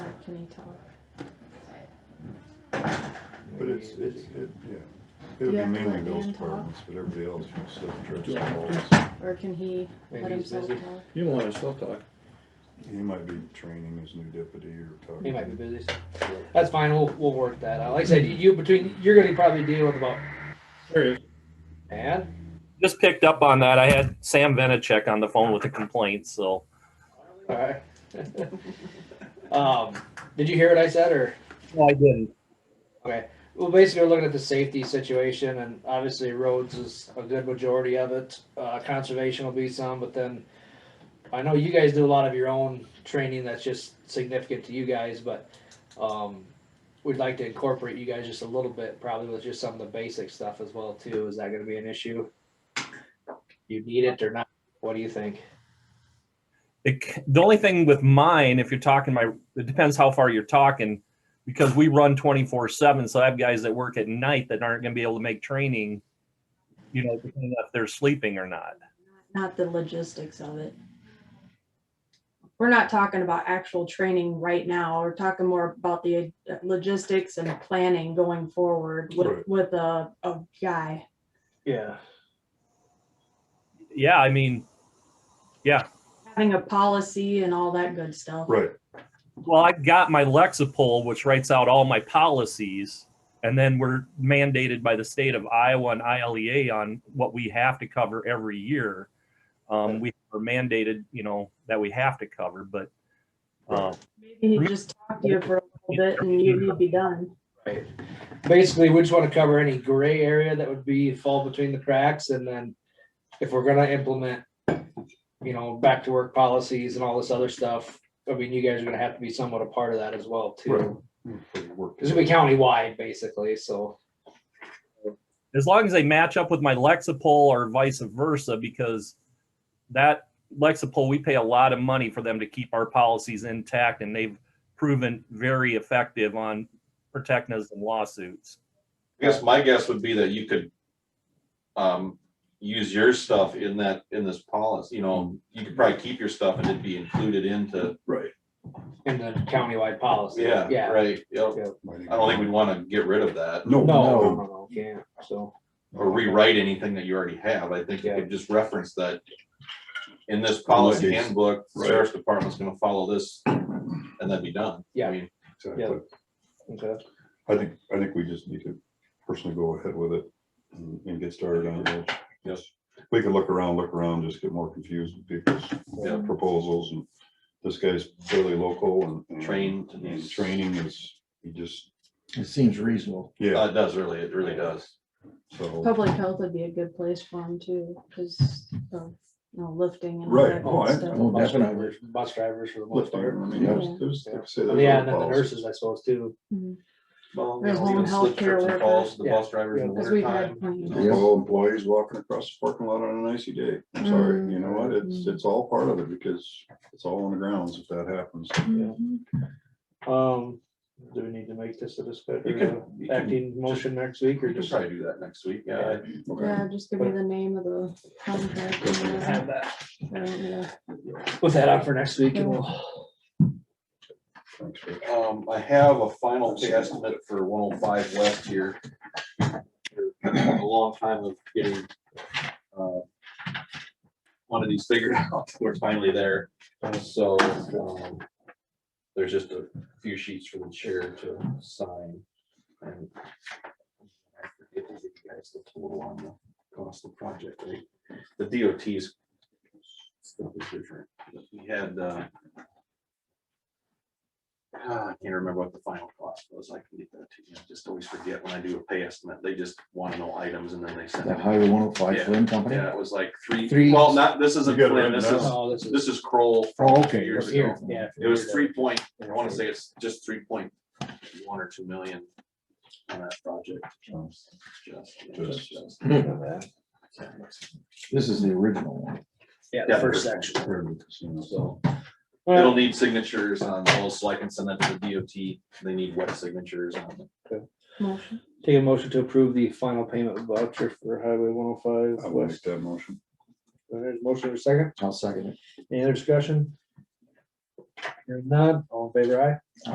Tiffany Tower. But it's, it's, it, yeah, Do it'll you be have to let mainly those Dan talk? departments, but everybody else will still address Do I the have walls. Or can he Maybe let he's himself busy. talk? You don't want to still talk. He might be training his new deputy or talking. He might be busy. so That's fine. We'll, we'll work that out. Like I said, you between, you're gonna probably deal with about, There he man, just picked up on that. I had Sam Venachek on the phone with a complaint, so alright. Um, did you hear what I said or? no, I didn't. Okay, well, basically, we're looking at the safety situation, and obviously roads is a good majority of it. Uh, conservation will be some, but then I know you guys do a lot of your own training that's just significant to you guys, but, um, we'd like to incorporate you guys just a little bit, probably with just some of the basic stuff as well too. Is that gonna be an issue? You need it or not? What do you think? It, c- the only thing with mine, if you're talking my, it depends how far you're talking, because we run 24 seven. So I have guys that work at night that aren't going to be able to make training, you know, depending on if they're sleeping or not. Not the logistics of it. We're not talking about actual training right now. We're talking more about the uh, logistics and planning going forward with, Right. with a, a guy. Yeah. Yeah, I mean, Having a policy and all that good stuff. Right, well, I've got my Lexapol, which writes out all my policies, and then we're mandated by the state of Iowa and ILEA on what we have to cover every year. Um, we are mandated, you know, that we have to cover, but uh, Maybe he just talked to you for a little bit and you would be done. Right. Basically, we just want to cover any gray area that would be fall between the cracks and then if we're gonna implement, you know, back to work policies and all this other stuff, I mean, you guys are gonna have to be somewhat a part of that as well right. too. We'll work This will be countywide basically, so. as long as they match up with my Lexapol or vice versa, because that Lexapol, we pay a lot of money for them to keep our policies intact, and they've proven very effective on protecting us in lawsuits. I guess my guess would be that you could, um, use your stuff in that, in this policy, you know, you could probably keep your stuff and it'd be included into, Right. And the countywide policy. yeah, right, yep. I don't think we'd wanna get rid of that No, No, no, no, no, yeah, so, or rewrite anything that you already have. I think you could just reference that in this policy Right. handbook, sheriff's department's gonna follow this and that'd be done. I Yeah. mean, exactly. okay. I think, I think we just need to personally go ahead with it and and get started on it. Yes. We could look around, look around, just get more confused with Yeah. people's proposals and this guy's fairly local and- and. Trained. And training is, he just, It seems reasonable. yeah, uh, it does really, it really does. so, Public health would be a good place for him too, because, you know, lifting and all Right. that Oh, good I- stuff. Oh, Bus definitely. drivers, bus drivers for the most lifting, I part. mean, there's, there's, like I say, there's Oh, Yeah, other and then the policies. nurses, I suppose, too. Mhm. Well, There's even home slip healthcare trips and falls, the workers. bus drivers in the Because we've wintertime. had plenty. of You know, all employees walking across the parking lot on an icy day. I'm sorry, you know what? It's, it's all part of it because it's all on the grounds if that happens. Mhm. Um, do we need to make this a You discussion, can, you can, acting motion next week or you can just? try to do that next week, yeah. Okay. Yeah, just give me the name of the contract. and, uh, have that, I don't know. put that out for next week and we'll, Thanks, Rick. Um, I have a final pay estimate for one oh five west here. A long time of getting, uh, quantities figured out, we're finally there, so, um, there's just a few sheets for the chair to sign. and I forget to give you guys the total on the cost of the project, right? the DOT's stuff is different, we had, uh, Ah, I can't remember what the final cost was. I can get that to you. I just always forget when I do a pay estimate. They just want to know items and then they send That it. Highway one oh five Yeah. Flynn Company? Yeah, it was like Three- three, well, not, this isn't You got it Flynn, written this is, oh, this is. this is Kroll. Oh, okay. Years up here, ago. Yeah. It was three point, I want to say it's just three point one or two million on that project. Just- just- just- This is the original one. Yeah, Yeah, the first section. Heard of the casino. So it'll Well, need signatures on those, so I can send that to the DOT. They need wet signatures on it. Motion. Take a motion to approve the final payment voucher for Highway one oh I five will make west. that motion. There's a motion in a second. I'll second it. Any other discussion? Hearing none, all in favor, aye?